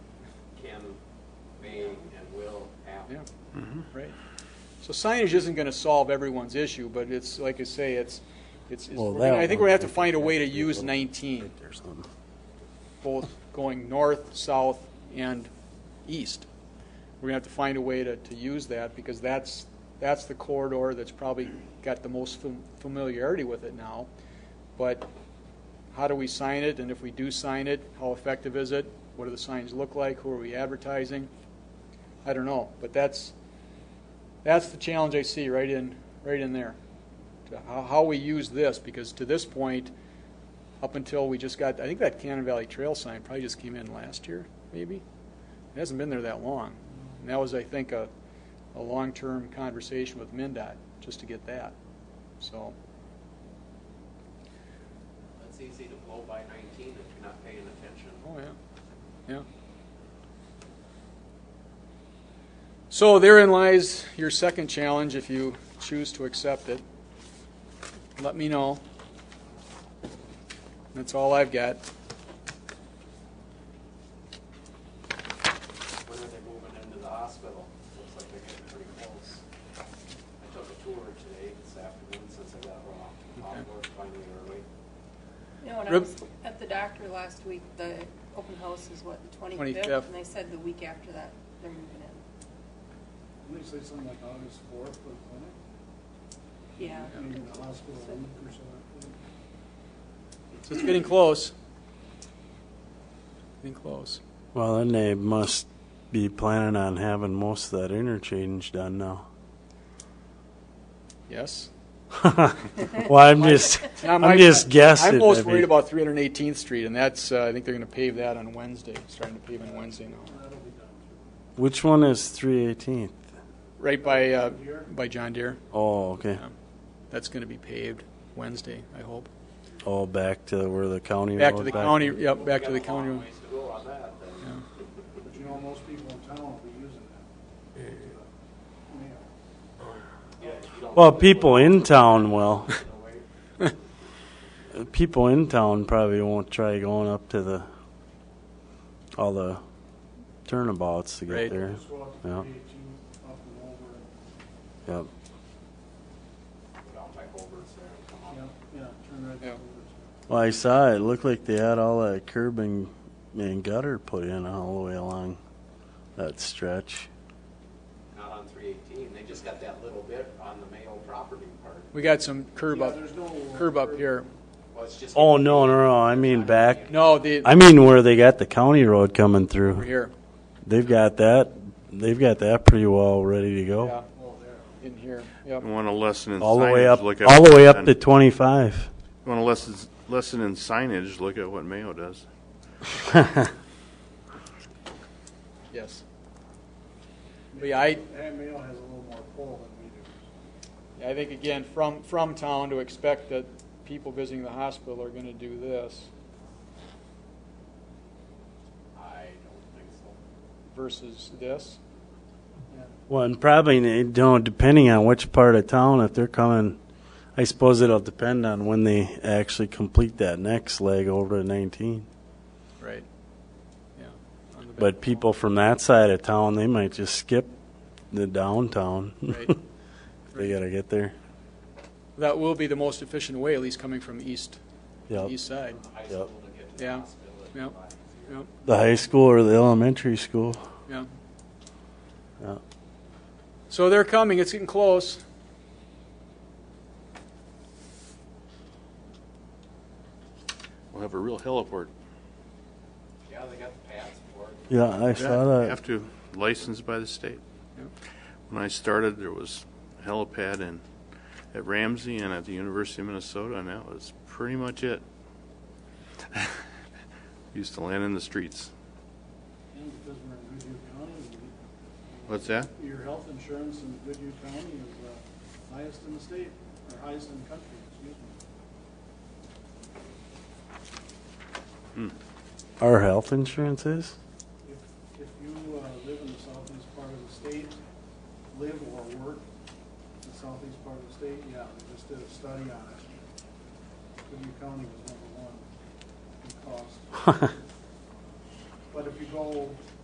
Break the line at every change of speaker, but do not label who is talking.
yeah, Mm-hmm. right. So signage isn't gonna solve everyone's issue, but it's, like I say, it's, it's, it's-
Well,
we're gonna-
that
I think we're gonna have to
one-
find a way to use nineteen,
There's something.
both going north, south, and east. We're gonna have to find a way to, to use that, because that's, that's the corridor that's probably got the most fam- familiarity with it now. But how do we sign it, and if we do sign it, how effective is it? What do the signs look like? Who are we advertising? I don't know, but that's, that's the challenge I see right in, right in there. To How, how we use this, because to this point, up until we just got, I think that Cannon Valley Trail sign probably just came in last year, maybe? It hasn't been there that long. And that was, I think, a, a long-term conversation with MinDOT, just to get that, so.
It's easy to blow by 19 if you're not paying attention.
Oh, yeah, yeah. So therein lies your second challenge, if you choose to accept it. Let me know. That's all I've got.
When are they moving into the hospital? Looks like they're getting pretty close. I took a tour today, this afternoon, since I got off, off
Okay.
work finally early.
No, and I
Rib-
was at the doctor last week, the open house is what, the
25th.
twenty-fifth? And they said the week after that, they're moving in.
Didn't they say something like August fourth for the clinic?
Yeah.
I mean, the hospital a week or so after.
So it's getting close. Getting close.
Well, then they must be planning on having most of that interchange done now.
Yes?
well, I'm just,
Now,
I'm
my-
just guessing.
I'm most
I mean,
worried about 318th Street, and that's, uh, I think they're going to pave that on Wednesday, starting to pave on Wednesday now.
That'll be done too.
Which one is 318th?
Right by, uh, by John Deere.
Oh, okay.
Yeah. That's going to be paved Wednesday, I hope.
Oh, back to where the county.
Back to
road
the county, yep,
We've
back to
got
the
a long
county.
ways to go on that, then.
Yeah.
But you know, most people in town will be using that. Yeah.
Yeah, you don't
Well,
really
people
want
in town will.
to know where-
People in town probably won't try going up to the all the turnabouts to get
Right.
there.
Just go out to
Yeah.
eighteen, E, up and over, and,
Yep.
Go down by Culver's there and come up.
yeah, yeah, turn right
Yeah.
over.
Well, I saw it. Looked like they had all that curb and, and gutter put in all the way along that stretch.
Not on 318, they just got that little bit on the Mayo property part.
We got some curb
Yeah,
up,
there's no, uh,
curb up here.
Well, it's just.
Oh no, no, no! I mean back.
No, the,
I mean where they got the county road coming
over
through.
here,
They've got that. They've got that pretty well ready to go.
yeah,
Well, there.
in here, yep.
You want a lesson in
All the
signage,
way up,
look at
all the
what
way up
Penn-
to twenty-five.
you want a lesson, lesson in signage, look at what Mayo does.
Yes. But yeah, I,
And Mayo has a little more pull than we do.
I think again, from, from town to expect that people visiting the hospital are going to do this
I don't think so.
versus this.
Well, and probably you know, depending on which part of town, if they're coming, I suppose it'll depend on when they actually complete that next leg over to nineteen.
Right. Yeah. on the
But
back
people from that side of town, they might just skip the downtown.
wall. Right.
they gotta get there.
That will be the most efficient way, at least coming from east,
Yep.
east side.
High
Yep.
school to get to the
Yeah.
hospital. it'd be
Yep.
a lot easier.
Yep,
The high school or the elementary school.
yeah.
Yeah.
So they're coming, it's getting close.
We'll have a real heliport.
Yeah, they got the pads for it.
Yeah, I saw
You
that.
have to, licensed by the state.
Yep.
When I started, there was helipad in, at Ramsey and at the University of Minnesota, and that was pretty much it. Used to land in the streets.
And because we're in Goodhue County, we-
What's that?
your health insurance in Goodhue County is uh, highest in the state, or highest in the country, excuse me.
Our health insurance is?
If, if you uh, live in the southeast part of the state, live or work in the southeast part of the state, yeah, they just did a study on it. Goodhue County was number one in cost. But if you go